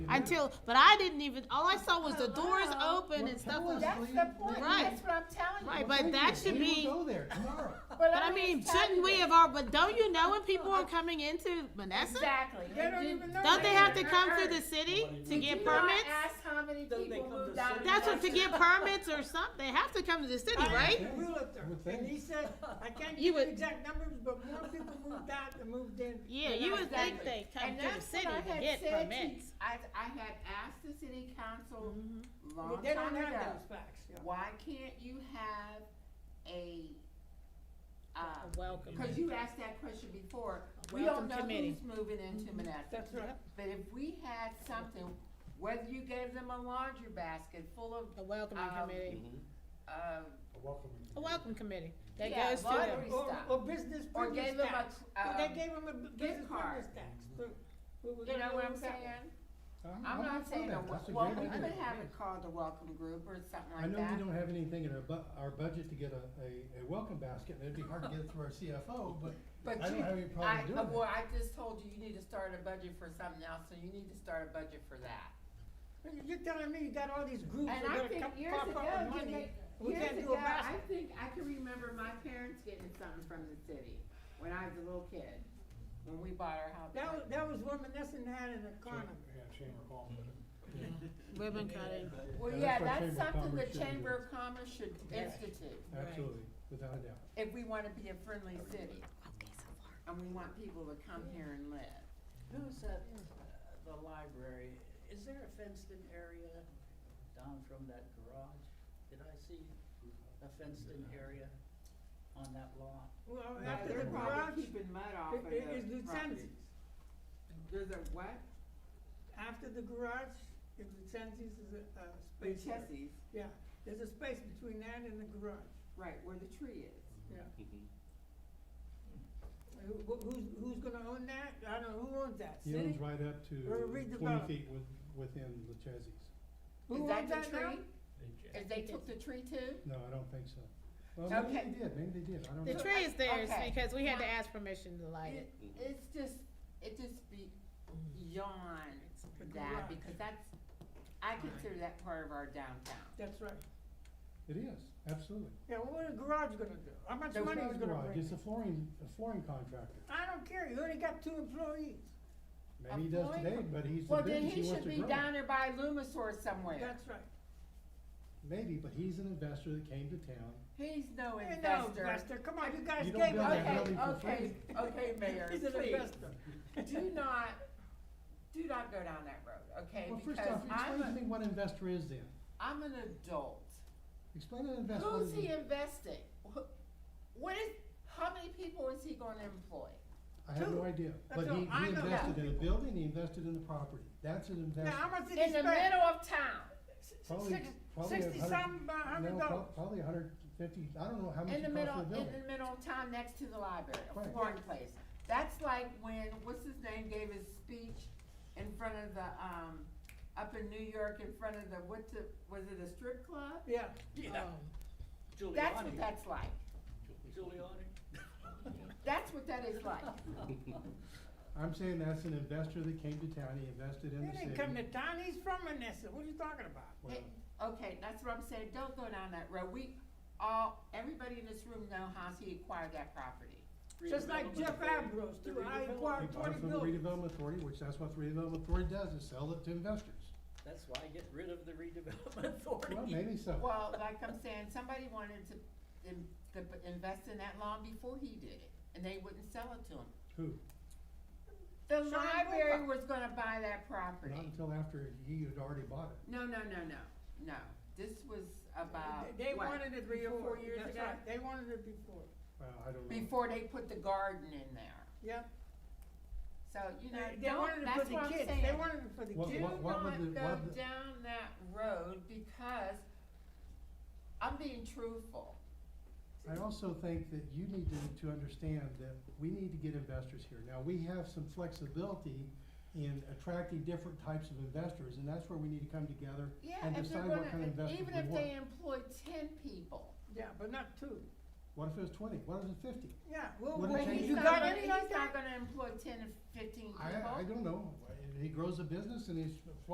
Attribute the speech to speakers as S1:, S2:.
S1: until, but I didn't even, all I saw was the doors open and stuff was,
S2: That's the point,
S1: Right.
S2: that's what I'm telling you.
S1: right, but that should
S3: We
S1: be,
S3: will go there tomorrow.
S1: but I mean, shouldn't we have, all? but don't you know when people are coming into Menneson?
S2: Exactly. They don't even know.
S1: Don't they have to
S2: that.
S1: come
S2: Uh-uh.
S1: through the city to
S2: Did
S1: get
S2: you not
S1: permits?
S2: ask how many
S4: Don't they
S2: people
S4: come to
S2: moved out of
S4: city?
S1: That's what, to
S2: Jackson?
S1: get permits or something, they have to come to the city,
S4: I
S1: right?
S4: asked the realtor,
S3: Would think.
S4: and he said, I
S1: You
S4: can't give you
S1: would-
S4: exact numbers, but more people moved out than moved in.
S1: Yeah,
S4: than
S1: you
S4: I
S1: would think
S4: expected."
S1: they come
S2: And
S1: to the
S2: that's
S1: city
S2: what I
S1: to
S2: had
S1: get
S2: said to-
S1: permits.
S2: I, I had asked the city council
S1: Mm-hmm.
S4: Well,
S2: long
S4: They don't
S2: time
S4: have
S2: ago,
S4: those facts, yeah.
S2: why can't you have a, uh,
S1: Welcome.
S2: Cause you asked that question before, we
S1: Mm-hmm. Welcome
S2: don't know
S1: committee. Mm-hmm.
S2: who's moving into Menneson.
S4: That's right.
S2: But if we had something, whether you gave them a laundry basket full of,
S1: A welcoming
S2: Um,
S1: committee,
S2: uh,
S1: a welcome committee that
S2: Yeah,
S1: goes to
S2: lottery
S1: them.
S4: Or,
S2: Stop.
S4: or business
S2: or
S4: privilege
S2: gave them
S4: tax.
S2: a,
S4: Well, They
S2: um,
S4: gave them a bu- business
S2: card. Mm-hmm.
S4: privilege tax. but we were
S2: you
S4: gonna
S2: know
S4: go
S2: what I'm
S4: with that one.
S2: saying?
S3: I'm-
S2: I'm not
S3: for
S2: saying,
S3: that.
S2: a
S3: That's a
S2: wel- well,
S3: great
S2: we
S3: idea.
S2: could have it called the welcome group or something
S3: I
S2: like
S3: know we
S2: that.
S3: don't have anything in our bu- our budget to get a, a, a welcome basket, and it'd be hard to get it through our CFO, but
S2: But
S3: I don't
S2: you-
S3: have any
S2: I,
S3: problem doing
S2: uh,
S3: that.
S2: well, I just told you, you need to start a budget for something else, so you need to start a budget for that.
S4: Well, You're telling me you got all these groups that
S2: And
S4: are
S2: I
S4: gonna
S2: think
S4: come
S2: years
S4: pop
S2: ago,
S4: up with
S2: you
S4: money.
S2: make-
S4: We
S2: Years
S4: can't do a
S2: ago, I
S4: basket.
S2: think, I can remember my parents getting something from the city when I was a little kid, when we bought our house.
S4: That was, that was reminiscent had in the corner.
S3: Mm-hmm.
S1: Ribbon cutting.
S2: Well,
S3: Yeah,
S2: yeah,
S3: that's what
S2: that's
S3: Chamber of
S2: something the
S3: Commerce should
S2: Chamber of Commerce should institute,
S3: Absolutely, without a doubt.
S2: if we wanna be a friendly city. And we want people to come here and live.
S5: Who's at the library? Is there a fenced-in area down from that garage? Did I see a fenced-in area on that lot?
S4: Well,
S2: No,
S4: after
S2: they're
S4: the
S2: probably
S4: garage,
S2: Keeping mud off
S4: i-
S2: of
S4: i-
S2: those
S4: is Luton's.
S2: properties. There's a what?
S4: after the garage, if Lucentis is a, a space there.
S2: Luchesse's,
S4: Yeah, there's a space between that and the garage,
S2: right, where the tree is.
S4: yeah. Who, who- who's, who's gonna own that? I don't know, who owns that?
S3: He
S4: City?
S3: owns right up to
S4: Or
S3: twenty
S4: redevelop.
S3: feet with, within the Chesseys.
S4: Who
S2: Is
S4: owns
S2: that the
S4: that now?
S2: tree? Is they took the tree too?
S3: No, I don't think so. Well, maybe
S2: Okay.
S3: they did, maybe they did, I don't
S1: The
S3: know.
S4: So,
S1: tree is theirs
S2: okay.
S1: because we had to ask permission to light it.
S2: It, it's just, it just be beyond
S4: The
S2: that,
S4: garage.
S2: because that's, I consider that part of our downtown.
S4: That's right.
S3: It is, absolutely.
S4: Yeah, well, what is the garage gonna do? How much
S3: It's
S4: money
S3: not
S4: is
S3: a
S4: gonna
S3: garage,
S4: bring?
S3: It's a flooring, a flooring contractor.
S4: I don't care, you already got two employees.
S3: Maybe he does
S2: flooring
S3: today,
S2: con-
S3: but he's the
S2: Well, then
S3: business, he
S2: he
S3: wants
S2: should
S3: to grow.
S2: be down there by Lumisource somewhere.
S4: That's right.
S3: Maybe, but he's an investor that came to town.
S2: He's no
S4: Hey, no,
S2: investor.
S4: Buster, come on, you guys
S3: You don't
S4: gave
S3: build
S4: up.
S3: that
S2: Okay,
S3: building for free.
S2: okay, okay, Mayor,
S4: He's an
S2: please.
S4: investor.
S2: do not, do not go down that road, okay?
S3: Well, first
S2: Because
S3: off,
S2: I'm,
S3: explain to
S2: a
S3: me what an investor is then.
S2: am an adult.
S3: Explain an investor. what
S2: Who's
S3: is
S2: he
S3: it?
S2: investing? Wh- What is, how many people is he gonna employ?
S3: I have
S4: Two.
S3: no idea,
S4: That's
S3: but
S4: all.
S3: he,
S4: I
S3: he
S4: know
S3: invested
S4: that.
S3: in a building, he invested in a property, that's an
S4: Now, how
S3: investment.
S4: much did he
S2: In the
S4: spend?
S2: middle of town,
S4: S- s-
S3: Probably-
S4: six-
S3: probably a
S4: Sixty
S3: hundred-
S4: some, uh, hundred
S3: No,
S4: dollars.
S3: prob- probably a hundred fifty, I don't know how much
S2: in
S3: it cost
S2: the middle,
S3: for a
S2: in
S3: building.
S2: the middle of town next to the library, a
S3: Right.
S2: flooring place. That's like when, what's his name gave his speech in front of the, um, up in New York, in front of the, what's the, was it a strip club?
S4: Yeah,
S1: Oh,
S2: That's what
S5: Giuliani.
S2: that's like.
S5: Giuliani?
S2: That's what that is like.
S3: I'm saying that's an investor that came to town, he invested in
S4: he
S3: the
S4: didn't come to
S3: city.
S4: town, he's from Menneson, what are you talking about?
S3: Well,
S2: Hey, Okay, that's what I'm saying, don't go down that road, we all, everybody in this room know how he acquired that property.
S4: Just like
S5: Redevelopment
S4: Jeff
S5: authority.
S4: Ambrose
S5: The
S4: too, I
S5: redevelopment.
S3: He
S4: acquired
S3: bought
S4: twenty
S3: it from the
S4: buildings.
S3: redevelopment authority, which that's what the redevelopment authority does, is sell it to investors.
S5: That's why I get rid of the redevelopment authority.
S3: Well, maybe so.
S2: Well, like I'm saying, somebody wanted to, in- to p- invest in that lawn before he did it, and they wouldn't sell it to him.
S3: Who?
S2: The
S4: Sean
S2: library
S4: Booker.
S2: was gonna buy that property.
S3: Not until after he had already bought it.
S2: No, no, no, no, no, this was about,
S4: They- They
S2: what,
S4: wanted it
S2: three or
S4: before,
S2: four years
S4: that's
S2: ago?
S4: right, they wanted it before,
S3: Well, I don't know.
S2: Before they put the garden in there,
S4: yeah.
S2: so, you know,
S4: They they
S2: don't,
S4: wanted it for
S2: that's
S4: the
S2: what I'm saying.
S4: kids, they wanted it for the
S3: What-
S2: Do
S4: kids.
S2: not
S3: what- what would the-
S2: go
S3: what the-
S2: down that road because I'm being truthful.
S3: I also think that you need to, to understand that we need to get investors here. Now, we have some flexibility in attracting different types of investors, and that's where we need to come together
S2: Yeah,
S3: and
S2: if they're
S3: decide what kind of
S2: gonna,
S3: investors
S2: even
S3: we
S2: if they
S3: want.
S2: employ ten people,
S4: Yeah, but not two,
S3: What if it was twenty, what if it was fifty?
S4: yeah, well,
S3: What
S4: well,
S3: did
S2: but
S3: Okay.
S2: he's
S4: you
S2: not
S4: got
S2: gonna,
S4: any
S2: he's
S4: like that?
S2: not gonna employ ten or fifteen people.
S3: I, I don't know, he grows a business and he's